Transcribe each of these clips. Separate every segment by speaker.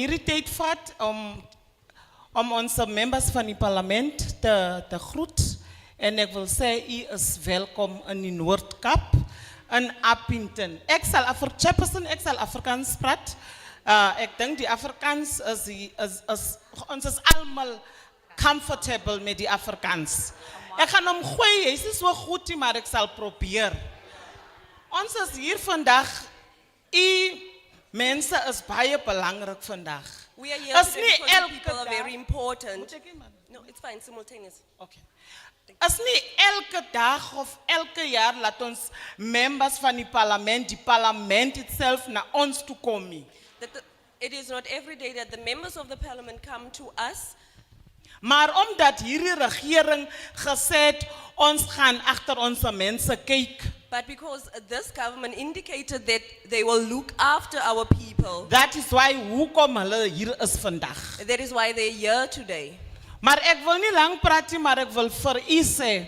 Speaker 1: Irriteert vat om, om onze members van het parlement te, te groeten. En ik wil zeggen, u is welkom in de Noordkap in Appington. Ik zal Afri- Chairperson, ik zal Afrikaans praten. Eh, ik denk die Afrikaans is, die- is, is, ons is allemaal comfortable met die Afrikaans. Ik ga hem gooien, het is niet zo goed, maar ik zal proberen. Ons is hier vandaag, u mensen is baie belangrijk vandaag.
Speaker 2: We are here
Speaker 1: Is
Speaker 2: today
Speaker 1: nie
Speaker 2: because you
Speaker 1: elke
Speaker 2: people are
Speaker 1: dag-
Speaker 2: very
Speaker 1: Moet
Speaker 2: important.
Speaker 1: ek nie, man?
Speaker 2: No, it's fine, simultaneous.
Speaker 1: Oké. Is niet elke dag of elke jaar laat ons members van die parlement, die parlement itself naar ons toe komen.
Speaker 2: That the, it is not every day that the members of the parliament come to us,
Speaker 1: Maar omdat hierdie regering gesê het ons gaan agter ons mense kyk,
Speaker 2: but because this government indicated that they will look after our people.
Speaker 1: that is why hoekom hulle hier is vandag.
Speaker 2: That is why they're here today.
Speaker 1: Maar ek wil nie lank praat nie, maar ek wil vir u sê,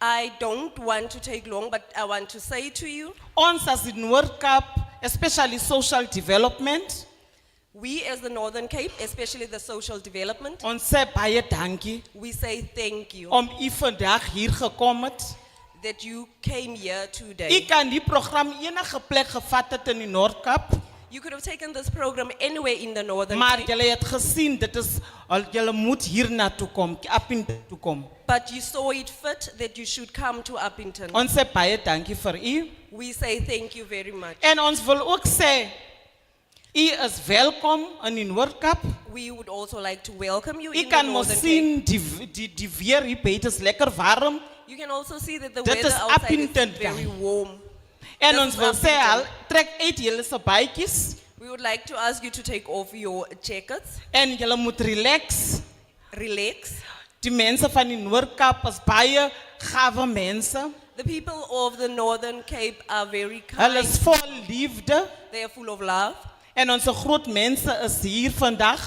Speaker 2: I don't want to take long, but I want to say to you,
Speaker 1: ons as in World Cup, especially social development,
Speaker 2: we as the Northern Cape, especially the social development,
Speaker 1: ons sê baie dankie
Speaker 2: we say thank you
Speaker 1: om u vandag hier gekom het.
Speaker 2: that you came here
Speaker 1: U
Speaker 2: today.
Speaker 1: kan die program enige plek gevat het in die Noordkap,
Speaker 2: You could have taken this program anywhere in the Northern
Speaker 1: maar
Speaker 2: Cape,
Speaker 1: julle het gesien dit is al julle moet hier na toe kom, op in toe kom.
Speaker 2: but you saw it fit that you should come to Uppington.
Speaker 1: Ons sê baie dankie vir u
Speaker 2: We say thank you very much.
Speaker 1: en ons wil ook sê u is welkom in die Noordkap.
Speaker 2: We would also like to welcome you
Speaker 1: U
Speaker 2: in the
Speaker 1: kan mos
Speaker 2: Northern
Speaker 1: sien
Speaker 2: Cape.
Speaker 1: die die die weer hier buite is lekker warm
Speaker 2: You can also see that the
Speaker 1: Dit
Speaker 2: weather
Speaker 1: is
Speaker 2: outside is
Speaker 1: Appington
Speaker 2: very
Speaker 1: dan.
Speaker 2: warm.
Speaker 1: en
Speaker 2: Dis
Speaker 1: ons wil
Speaker 2: is
Speaker 1: sê
Speaker 2: Appington.
Speaker 1: al trek uit julle se bytjies
Speaker 2: We would like to ask you to take off your jackets,
Speaker 1: en julle moet relax.
Speaker 2: relax.
Speaker 1: Die mense van die Noordkap is baie gawe mense.
Speaker 2: The people of the Northern Cape are very
Speaker 1: Hulle
Speaker 2: kind.
Speaker 1: is vol liefde.
Speaker 2: They are full of love.
Speaker 1: En onze groot mensen is hier vandaag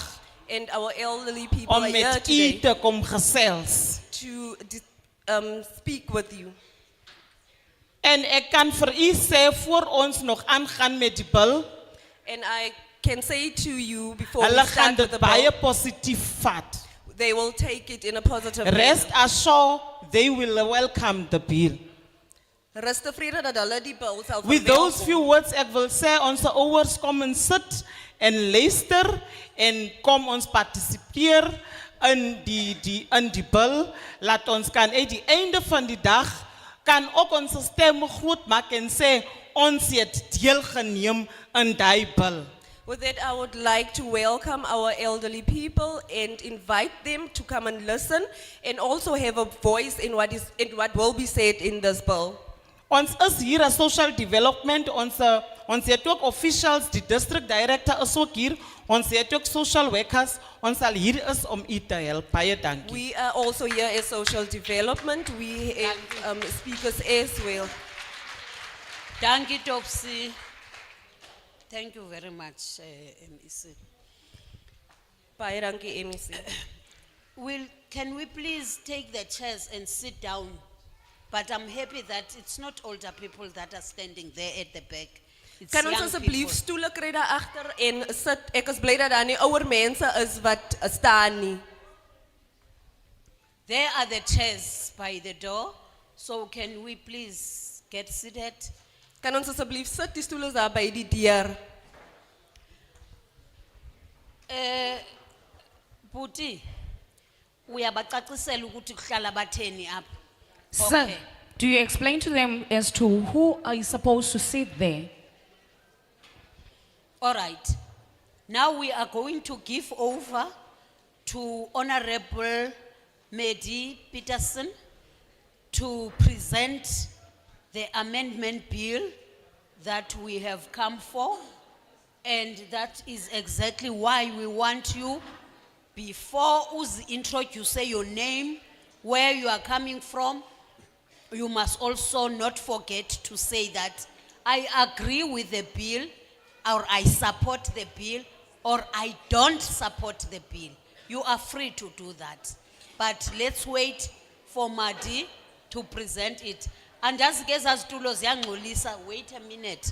Speaker 2: And our elderly people
Speaker 1: om
Speaker 2: are here
Speaker 1: met u
Speaker 2: today
Speaker 1: te kom gesels.
Speaker 2: to dis- um, speak with you.
Speaker 1: En ik kan voor u zeggen, voor ons nog aangaan met die bil,
Speaker 2: And I can say to you before we
Speaker 1: hulle gaan
Speaker 2: start with
Speaker 1: dit
Speaker 2: the
Speaker 1: baie
Speaker 2: bill,
Speaker 1: positief vat.
Speaker 2: they will take it in a positive
Speaker 1: Rest assured, they will welcome the bill.
Speaker 2: manner. Rest afraid dat hulle die bill sal
Speaker 1: With those
Speaker 2: verwelkom.
Speaker 1: few words, ik wil zeggen, onze ouders kom en sit en luister en kom ons participeer in die, die, in die bil. Laat ons kan uit die einde van die dag, kan ook onze stem groot maken en zeggen, ons het deelgeneem in die bil.
Speaker 2: With that, I would like to welcome our elderly people and invite them to come and listen and also have a voice in what is in what will be said in this bill.
Speaker 1: Ons is hier als social development, onze, ons het ook officials, die district director is ook hier, ons het ook social workers, ons al hier is om u te helpen. Baie dankie.
Speaker 2: We are also here as social development. We have um, speakers as well.
Speaker 3: Thank you, Topsy. Thank you very much, uh, MEC.
Speaker 2: Baie dankie MEC.
Speaker 3: Will, can we please take the chairs and sit down? But I'm happy that it's not older people that are standing there at the back. It's
Speaker 2: Kan ons
Speaker 3: young
Speaker 2: asseblief
Speaker 3: people.
Speaker 2: stoele kry daar agter en sit. Ek is bly dat daar nie ouer mense is wat eh, staan nie.
Speaker 3: There are the chairs by the door, so can we please get seated?
Speaker 2: Kan ons asseblief sit die stoele is daar by die deur.
Speaker 3: Uh, Buti, uyabacacisela ukuthi kuhlala batheni apha.
Speaker 4: Sir,
Speaker 3: Okay.
Speaker 4: do you explain to them as to who are you supposed to sit there?
Speaker 3: All right. Now we are going to give over to Honorable Medi Peterson to present the amendment bill that we have come for. And that is exactly why we want you, before us introduce your name, where you are coming from, you must also not forget to say that I agree with the bill, or I support the bill, or I don't support the bill. You are free to do that. But let's wait for Madi to present it. Andazigeza stulos yangulisa, wait a minute.